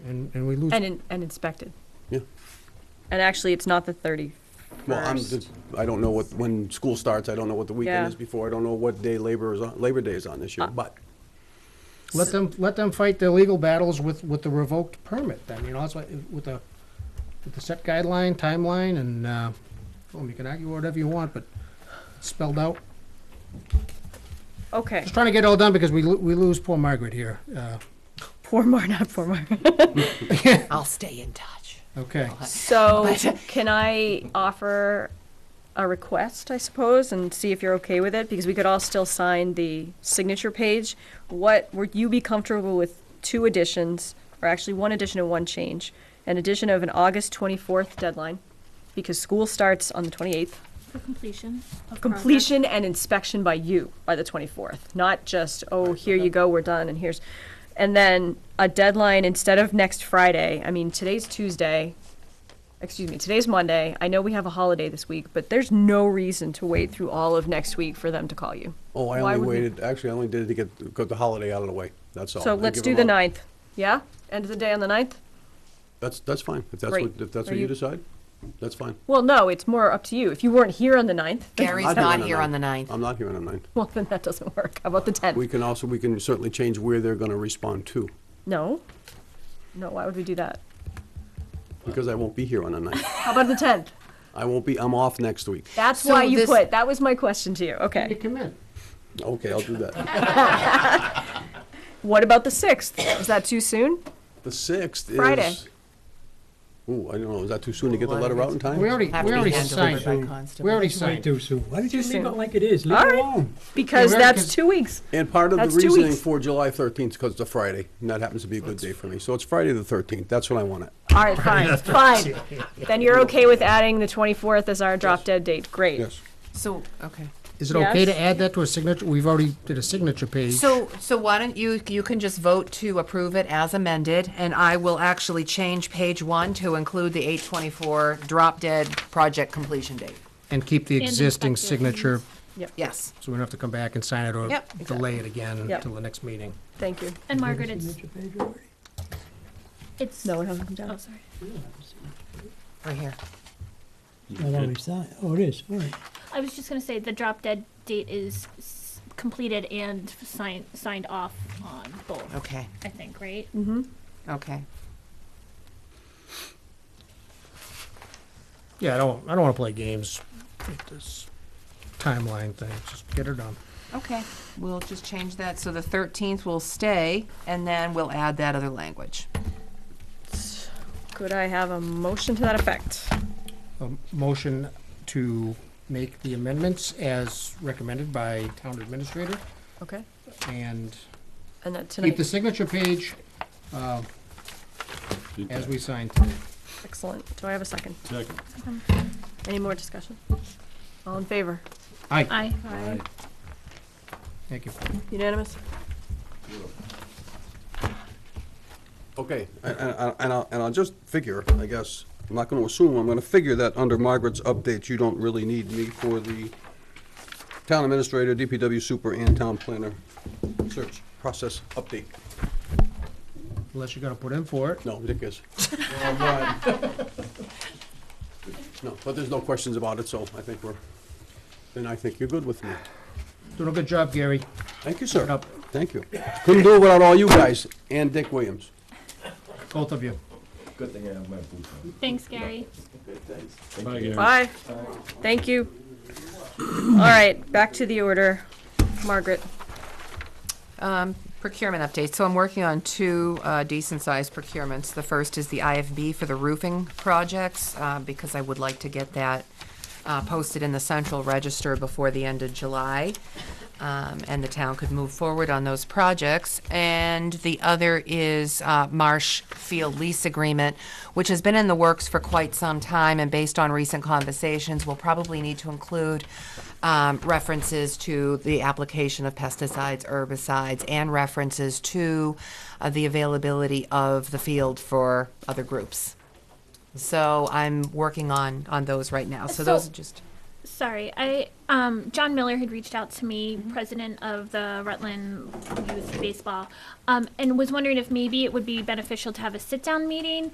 and we lose. And, in- and inspected. Yeah. And actually, it's not the Well, I'm, thirty-first. just- I don't know what, when school starts, I don't know what the weekend Yeah. is before, I don't know what day labor is on, Labor Day is on this year, Uh, but Let them, let them fight their legal battles with, with the revoked permit then, you know, it's like, with the, with the set guideline, timeline, and, uh, well, you can argue whatever you want, but spelled out. Okay, Just trying to get it all done because we, lo- we lose poor Margaret here. Uh, poor Mar, not poor Mar. I'll stay in touch. okay. So, can I offer a request, I suppose, and see if you're okay with it? Because we could all still sign the signature page. What, would you be comfortable with two additions, or actually one addition and one change? An addition of an August twenty-fourth deadline, because school starts on the twenty-eighth. For completion. of completion and inspection by you by the 24th, not just, oh, here you go, we're done, and here's, and then a deadline instead of next Friday. I mean, today's Tuesday, excuse me, today's Monday. I know we have a holiday this week, but there's no reason to wait through all of next week for them to call you. Oh, Why I would only we- waited, actually, I only did it to get, got the holiday out of the way, that's all. So I let's give do the them all- ninth. Yeah? End of the day on the ninth? That's, that's fine, if that's Great. what, if that's Are what you- you decide, that's fine. Well, no, it's more up to you. If you weren't here on the ninth, Gary's I'll do it not the here on the ninth. ninth. I'm not here on the ninth. well, then that doesn't work. How about the We 10th? can also, we can certainly change where they're gonna respond to, No? No, why would we do that? because I won't be here on the ninth. How about the 10th? I won't be, I'm off next week. That's So why you this- put. That was my question to you. You Okay. come in. Okay, I'll do that. What about the sixth? Is that too soon? The sixth is. Friday. Ooh, I don't know, is that too soon to get the letter out in time? We already, we Have to be already handled signed. by it. constable. We already It's way signed. too soon. Why did you soon. leave it like it is? Leave All it right. alone. Because Yeah, that's because- two weeks. And part of the That's two reasoning weeks. for July 13th, because it's a Friday, and that happens to be a good day for me. So it's Friday the 13th, that's when I want it. All right, fine, fine. Then you're okay with adding the 24th as our drop dead date. Great. Yes. So, okay. Is it okay Yes. to add that to a signature? We've already did a signature page. So, so why don't you, you can just vote to approve it as amended, and I will actually change page one to include the eight twenty-four drop dead project completion date. And keep the And existing inspected. signature, Yes. so we don't have to come back and sign it or Yep, delay it again Yep. until the next meeting. Thank you. And Margaret, it's, it's, No, oh, it hasn't come down. sorry. Right here. Not already signed. Oh, it is. All right. I was just gonna say, the drop dead date is s- completed and signed, signed off on both, Okay, I think, right? okay. Yeah, I don't, I don't wanna play games with this timeline thing, just get it done. Okay, we'll just change that, so the thirteenth will stay, and then we'll add that other language. Could I have a motion to that effect? A motion to make the amendments as recommended by town administrator Okay. and And that keep the tonight. signature page, um, as we sign today. Excellent. Do I have a second? Second. Any more discussion? All in favor? Aye, Aye. thank you. Unanimous? Okay, and, and- and I'll, and I'll just figure, I guess, I'm not gonna assume, I'm gonna figure that under Margaret's updates, you don't really need me for the town administrator, DPW super, and town planner search process update. Unless you're gonna put in for it. No, Dick is. No, but there's no questions about it, so I think we're, then I think you're good with me. Doing a good job, Gary. Thank you, sir. up. Thank you. Couldn't do it without all you guys and Dick Williams. Both of you. Good thing I have my boots on. Thanks, Gary. Bye. Thank you. All right, back to the order. Margaret. Um, procurement update. So I'm working on two uh, decent-sized procurements. The first is the IFB for the roofing projects, uh, because I would like to get that uh, posted in the central register before the end of July. Um, and the town could move forward on those projects. And the other is uh, Marsh Field lease agreement, which has been in the works for quite some time. And based on recent conversations, we'll probably need to include um, references to the application of pesticides, herbicides, and references to uh, the availability of the field for other groups. So I'm working on, on those right now. So those So- are just, Sorry, I um, John Miller had reached out to me, president of the Rutland Youth Baseball, um, and was wondering if maybe it would be beneficial to have a sit-down meeting